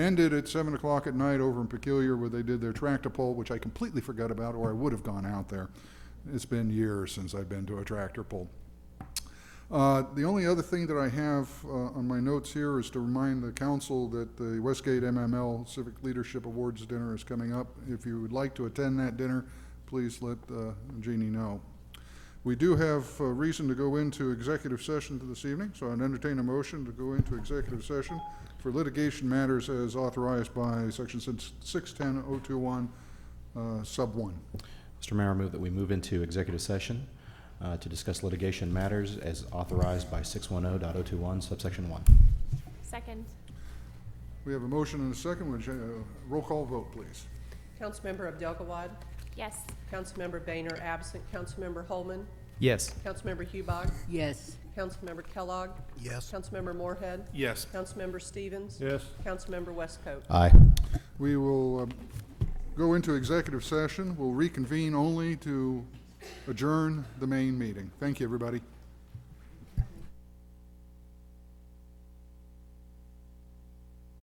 ended at seven o'clock at night over in Peculiar where they did their tractor pull, which I completely forgot about, or I would have gone out there. It's been years since I've been to a tractor pull. Uh, The only other thing that I have uh, on my notes here is to remind the council that the Westgate MML Civic Leadership Awards dinner is coming up. If you would like to attend that dinner, please let uh, Jeannie know. We do have uh, reason to go into executive session this evening, so I'd entertain a motion to go into executive session for litigation matters as authorized by Section 610-021, uh, Sub 1. Mr. Mayor, I move that we move into executive session uh, to discuss litigation matters as authorized by 610.021 subsection 1. Second. We have a motion and a second. Would you, uh, Roll call vote, please. Councilmember Abdelgawad, Yes. Councilmember Boehner absent, Councilmember Holman, Yes. Councilmember Hubach, Yes. Councilmember Kellogg. Yes. Councilmember Moorhead. Yes. Councilmember Stevens. Yes. Councilmember Westcoat. Aye. We will uh, go into executive session. We'll reconvene only to adjourn the main meeting. Thank you, everybody.